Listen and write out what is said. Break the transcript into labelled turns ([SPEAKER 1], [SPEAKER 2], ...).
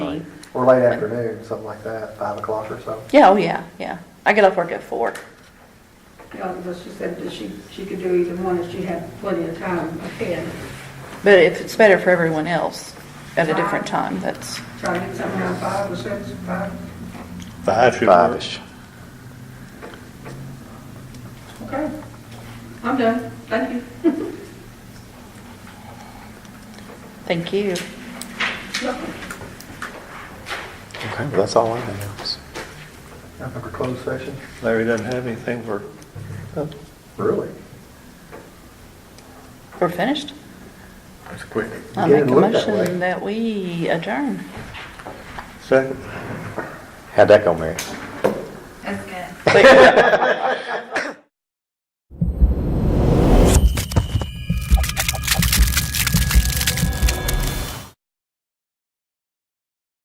[SPEAKER 1] or late afternoon, something like that, five o'clock or so.
[SPEAKER 2] Yeah, oh, yeah, yeah. I get off work at four.
[SPEAKER 3] Yeah, but she said that she, she could do either one if she had plenty of time ahead.
[SPEAKER 2] But if it's better for everyone else at a different time, that's,
[SPEAKER 3] Try to get something around five or six, five,
[SPEAKER 4] Five should work.
[SPEAKER 5] Five-ish.
[SPEAKER 3] okay. I'm done, thank you.
[SPEAKER 2] thank you.
[SPEAKER 5] Okay, well, that's all I have.
[SPEAKER 1] I think we're closed session.
[SPEAKER 4] Larry doesn't have anything for,
[SPEAKER 1] Really?
[SPEAKER 2] We're finished.
[SPEAKER 1] That's quick.
[SPEAKER 2] I
[SPEAKER 1] You
[SPEAKER 2] make a
[SPEAKER 1] didn't look that
[SPEAKER 2] motion
[SPEAKER 1] way.
[SPEAKER 2] that we adjourn.
[SPEAKER 4] second,
[SPEAKER 5] How'd that go, Mary?
[SPEAKER 6] That's good.
[SPEAKER 2] Wait,